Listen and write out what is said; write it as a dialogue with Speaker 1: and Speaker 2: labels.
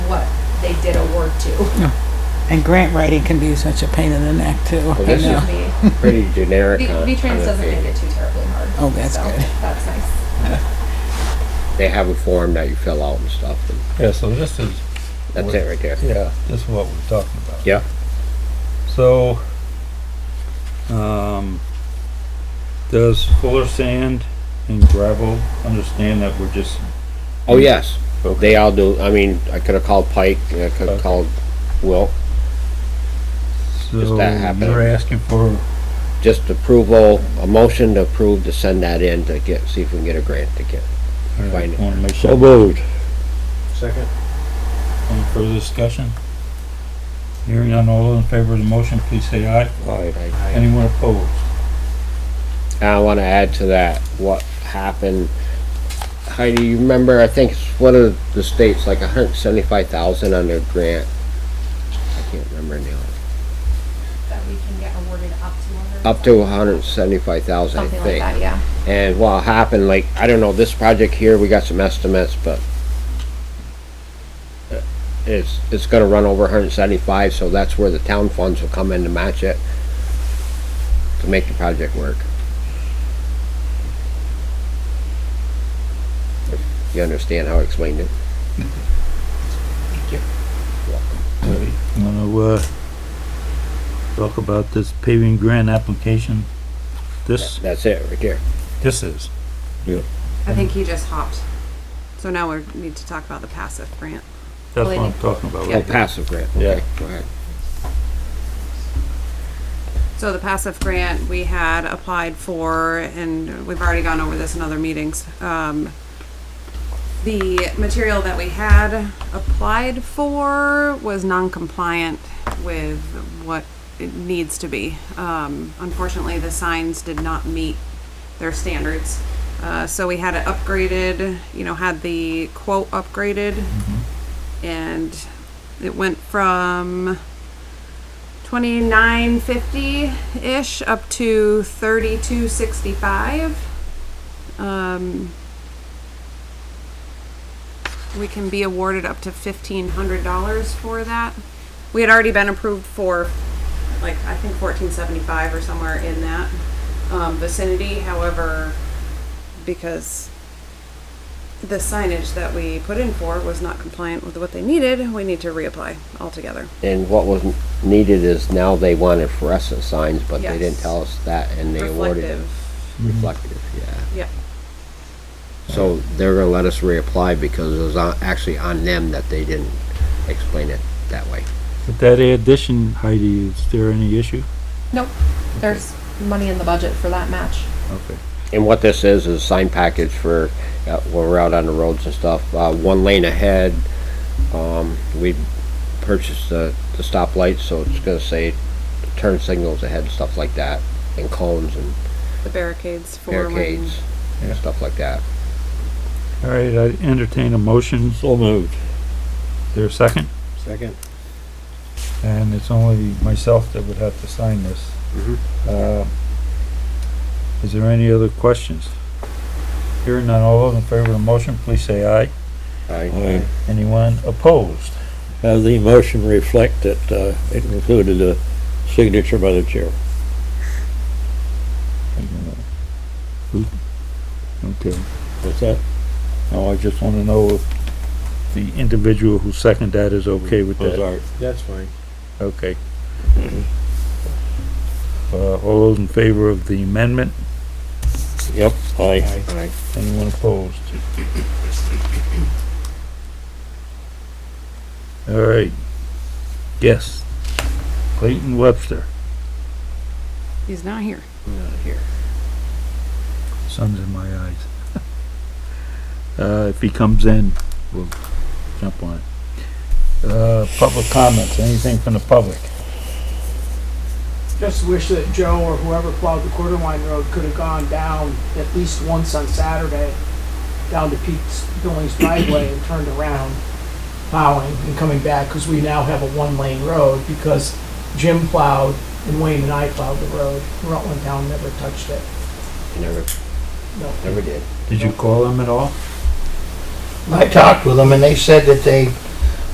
Speaker 1: what they did award to.
Speaker 2: And grant writing can be such a pain in the neck too. I
Speaker 3: this is-
Speaker 2: know.
Speaker 1: Excuse
Speaker 3: Pretty generic.
Speaker 1: me.
Speaker 3: on-
Speaker 1: V- V-Trans
Speaker 3: on the
Speaker 1: doesn't
Speaker 3: fee.
Speaker 1: make it too terribly hard.
Speaker 2: Oh, that's
Speaker 1: so
Speaker 2: good.
Speaker 1: That's nice.
Speaker 3: They have a form that you fill out and stuff, and
Speaker 4: Yeah, so this is,
Speaker 3: that's it right there.
Speaker 4: yeah, this is what we're talking about.
Speaker 3: Yeah.
Speaker 4: So, um, does Fuller Sand and Gravel understand that we're just,
Speaker 3: Oh, yes,
Speaker 4: Okay.
Speaker 3: they all do, I mean, I could've called Pike, and I could've
Speaker 4: Okay.
Speaker 3: called Will,
Speaker 4: so
Speaker 3: Just that happened.
Speaker 4: you're asking for,
Speaker 3: just approval, a motion to approve to send that in to get, see if we can get a grant to get.
Speaker 4: I
Speaker 3: Fine.
Speaker 4: wanna make sure,
Speaker 3: moved.
Speaker 5: Second?
Speaker 4: any further discussion? Hearing on all in favor of the motion, please say aye. Anyone opposed?
Speaker 3: And I wanna add to that, what happened, Heidi, you remember, I think it's one of the states, like a hundred seventy-five thousand on their grant. I can't remember now,
Speaker 1: That we can get awarded up to.
Speaker 3: up to a hundred seventy-five thousand, I
Speaker 1: Something
Speaker 3: think.
Speaker 1: like that, yeah.
Speaker 3: And what happened, like, I don't know, this project here, we got some estimates, but uh, it's, it's gonna run over hundred and seventy-five, so that's where the town funds will come in to match it to make the project work. If You understand how I explained it?
Speaker 4: Alright, I'm gonna, uh, talk about this paving grant application. This,
Speaker 3: That's it, right there.
Speaker 4: this is.
Speaker 6: I think he just hopped. So now we need to talk about the passive grant.
Speaker 4: That's what I'm talking about.
Speaker 3: Oh, passive grant, okay, go ahead.
Speaker 6: So the passive grant we had applied for, and we've already gone over this in other meetings. Um, the material that we had applied for was non-compliant with what it needs to be. Um, unfortunately, the signs did not meet their standards. Uh, so we had it upgraded, you know, had the quote upgraded. And it went from twenty-nine fifty-ish up to thirty-two sixty-five. Um, we can be awarded up to fifteen hundred dollars for that. We had already been approved for, like, I think fourteen seventy-five or somewhere in that, um, vicinity, however, because the signage that we put in for was not compliant with what they needed, we need to reapply altogether.
Speaker 3: And what was needed is now they wanted fluorescent signs, but they didn't
Speaker 6: Yes.
Speaker 3: tell us that, and they awarded it.
Speaker 6: Reflective.
Speaker 3: Reflective, yeah.
Speaker 6: Yep.
Speaker 3: So they're gonna let us reapply because it was on, actually on them that they didn't explain it that way.
Speaker 4: With that addition, Heidi, is there any issue?
Speaker 1: There's money in the budget for that match.
Speaker 4: Okay.
Speaker 3: And what this is, is a sign package for, uh, when we're out on the roads and stuff, uh, one lane ahead. Um, we purchased the, the stoplights, so it's gonna say turn signals ahead, stuff like that, and cones and
Speaker 6: the barricades for when-
Speaker 3: barricades, and
Speaker 4: Yeah.
Speaker 3: stuff like that.
Speaker 4: All right, I entertain a motion. So moved. There a second?
Speaker 5: Second?
Speaker 4: And it's only myself that would have to sign this.
Speaker 3: Mhm.
Speaker 4: Uh, Is there any other questions? Hearing none, all those in favor of the motion, please say aye.
Speaker 3: Aye.
Speaker 4: Anyone opposed?
Speaker 7: Have Uh, the motion reflect that uh, it included a signature by the chair.
Speaker 4: Okay.
Speaker 7: What's that?
Speaker 4: Now, I just want to know if the individual who seconded that is okay with that.
Speaker 7: Ozark.
Speaker 5: That's fine.
Speaker 4: Okay. Uh, all those in favor of the amendment?
Speaker 7: Yep, aye.
Speaker 3: Aye.
Speaker 4: Anyone opposed? All right. Yes. Clayton Webster,
Speaker 6: He's not here.
Speaker 4: sun's in my eyes. Uh, if he comes in, we'll jump on it. Uh, public comments, anything from the public?
Speaker 8: Just wish that Joe or whoever plowed the quarter line road could have gone down at least once on Saturday, down to Pete's Billings driveway and turned around plowing and coming back, because we now have a one-lane road, because Jim plowed and Wayne and I plowed the road. Rutland Town never touched it.
Speaker 3: Never,
Speaker 8: No.
Speaker 3: never did.
Speaker 4: Did you call him at all?
Speaker 5: I talked with them and they said that they